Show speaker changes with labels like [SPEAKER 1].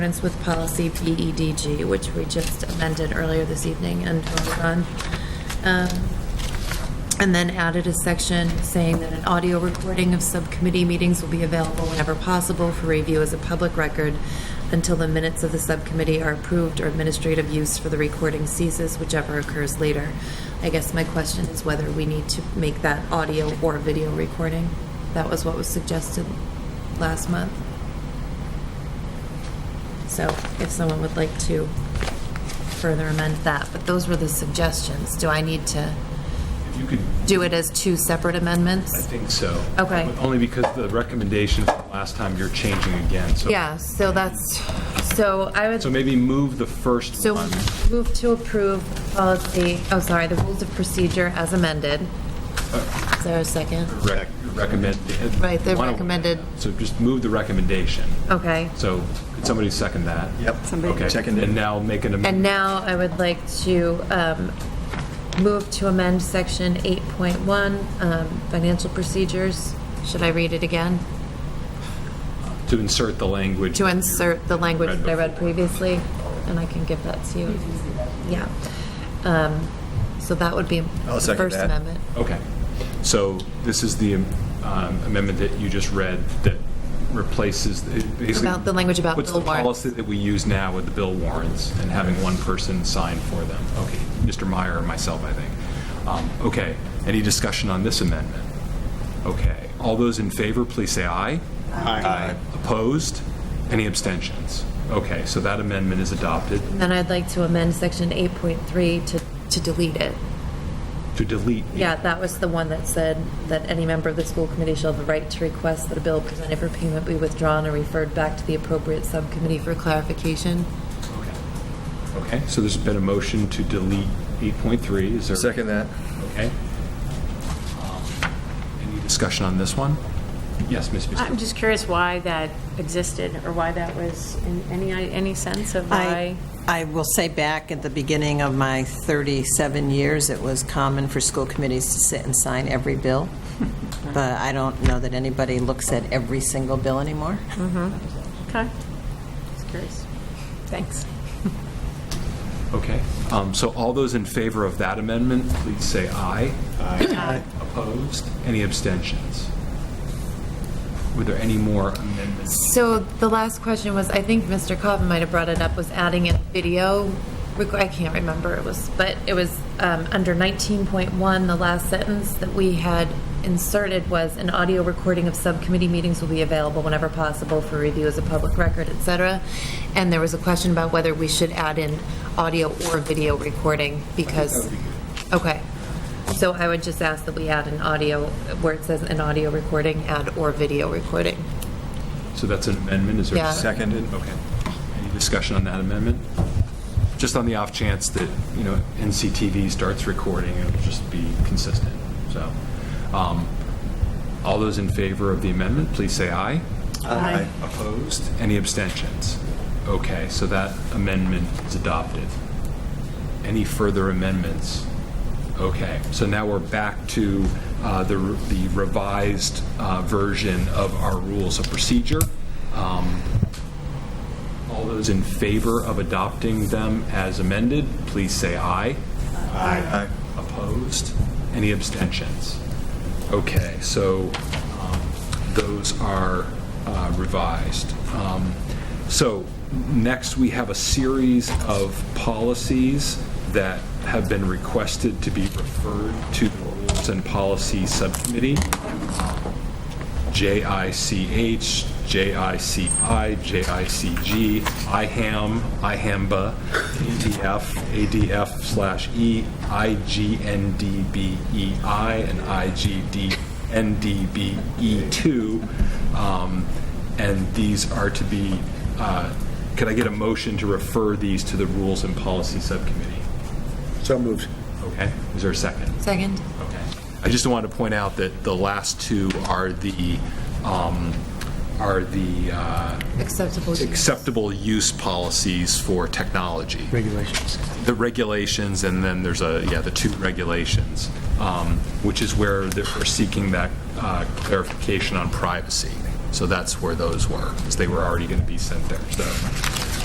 [SPEAKER 1] accordance with policy PEDG, which we just amended earlier this evening and voted on. Um, And then added a section saying that an audio recording of subcommittee meetings will be available whenever possible for review as a public record until the minutes of the subcommittee are approved or administrative use for the recording ceases, whichever occurs later. I guess my question is whether we need to make that audio or video recording. That was what was suggested last month. So if someone would like to further amend that, but those were the suggestions. Do I need to
[SPEAKER 2] You could,
[SPEAKER 1] do it as two separate amendments?
[SPEAKER 2] I think so.
[SPEAKER 1] Okay.
[SPEAKER 2] Only because the recommendations from last time you're changing again, so.
[SPEAKER 1] Yeah, so that's, so I would,
[SPEAKER 2] So maybe move the first
[SPEAKER 1] so
[SPEAKER 2] one.
[SPEAKER 1] move to approve policy, oh, sorry, the rules of procedure as amended. Is there a second?
[SPEAKER 2] rec- Recommend.
[SPEAKER 1] Right, the
[SPEAKER 2] Wanna-
[SPEAKER 1] recommended- Oh.
[SPEAKER 2] So just move the recommendation.
[SPEAKER 1] Okay.
[SPEAKER 2] So could somebody second that?
[SPEAKER 3] Yep.
[SPEAKER 2] Okay.
[SPEAKER 3] Second it.
[SPEAKER 2] And now make an
[SPEAKER 1] And
[SPEAKER 2] amendment.
[SPEAKER 1] now I would like to um, move to amend section 8.1, um, financial procedures. Should I read it again?
[SPEAKER 2] To insert the language.
[SPEAKER 1] To
[SPEAKER 2] that you
[SPEAKER 1] insert the language that I read
[SPEAKER 2] before.
[SPEAKER 1] previously, and I can give that to you. Yeah. Um, So that would be
[SPEAKER 3] I'll
[SPEAKER 1] the
[SPEAKER 3] second
[SPEAKER 1] First
[SPEAKER 3] that.
[SPEAKER 1] Amendment.
[SPEAKER 2] Okay. So this is the um, amendment that you just read that replaces, it basically.
[SPEAKER 1] About the language about bill
[SPEAKER 2] What's the
[SPEAKER 1] warrants.
[SPEAKER 2] policy that we use now with the bill warrants and having one person sign for them? Okay, Mr. Meyer and myself, I think. Um, Okay, any discussion on this amendment? Okay, all those in favor, please say aye. Aye. Opposed? Any abstentions? Okay, so that amendment is adopted
[SPEAKER 1] And Then I'd like to amend section 8.3 to, to delete it.
[SPEAKER 2] to delete.
[SPEAKER 1] Yeah, that was the one that said that any member of the school committee shall have the right to request that a bill presented for payment be withdrawn or referred back to the appropriate subcommittee for clarification.
[SPEAKER 2] Okay. Okay, so there's been a motion to delete 8.3, is there?
[SPEAKER 3] Second that.
[SPEAKER 2] Okay. Um, Any discussion on this one? Yes, Ms. Bisbee?
[SPEAKER 4] I'm just curious why that existed, or why that was, in any, any sense of why?
[SPEAKER 5] I, I will say back at the beginning of my 37 years, it was common for school committees to sit and sign every bill, but I don't know that anybody looks at every single bill anymore.
[SPEAKER 4] Okay, just curious. Thanks.
[SPEAKER 2] Okay, um, so all those in favor of that amendment, please say aye. Aye. Opposed? Any abstentions? Were there any more amendments?
[SPEAKER 1] So the last question was, I think Mr. Coffin might have brought it up, was adding a video, requ- I can't remember, it was, but it was um, under 19.1, the last sentence that we had inserted was, an audio recording of subcommittee meetings will be available whenever possible for review as a public record, et cetera. And there was a question about whether we should add in audio or video recording, because, okay. So I would just ask that we add an audio, where it says an audio recording, add or video recording.
[SPEAKER 2] So that's an amendment, is there? a
[SPEAKER 1] Yeah.
[SPEAKER 3] Seconded.
[SPEAKER 2] Okay. Any discussion on that amendment? Just on the off chance that, you know, NCTV starts recording, it'll just be consistent, so. um, All those in favor of the amendment, please say aye.
[SPEAKER 3] Aye.
[SPEAKER 2] Opposed? Any abstentions? Okay, so that amendment is adopted. Any further amendments? Okay, so now we're back to uh, the the revised uh, version of our rules of procedure. Um, All those in favor of adopting them as amended, please say aye.
[SPEAKER 3] Aye.
[SPEAKER 2] Opposed? Any abstentions? Okay, so um, those are uh, revised. Um, So next, we have a series of policies that have been requested to be referred to the Rules and Policy Subcommittee. JICH, JICI, JICG, IHAM, IHAMBA, E ADF, ADF slash E, IGNDBEI, E and IGDNDBE2. E Um, And these are to be, uh, could I get a motion to refer these to the Rules and Policy Subcommittee?
[SPEAKER 3] So moved.
[SPEAKER 2] Okay, is there a second?
[SPEAKER 1] Second.
[SPEAKER 2] Okay. I just wanted to point out that the last two are the, um, are the uh,
[SPEAKER 1] Acceptable.
[SPEAKER 2] acceptable use policies for technology.
[SPEAKER 6] regulations.
[SPEAKER 2] The regulations, and then there's a, yeah, the two regulations, um, which is where they're we're seeking that uh, clarification on privacy. So that's where those were, because they were already going to be sent there, so.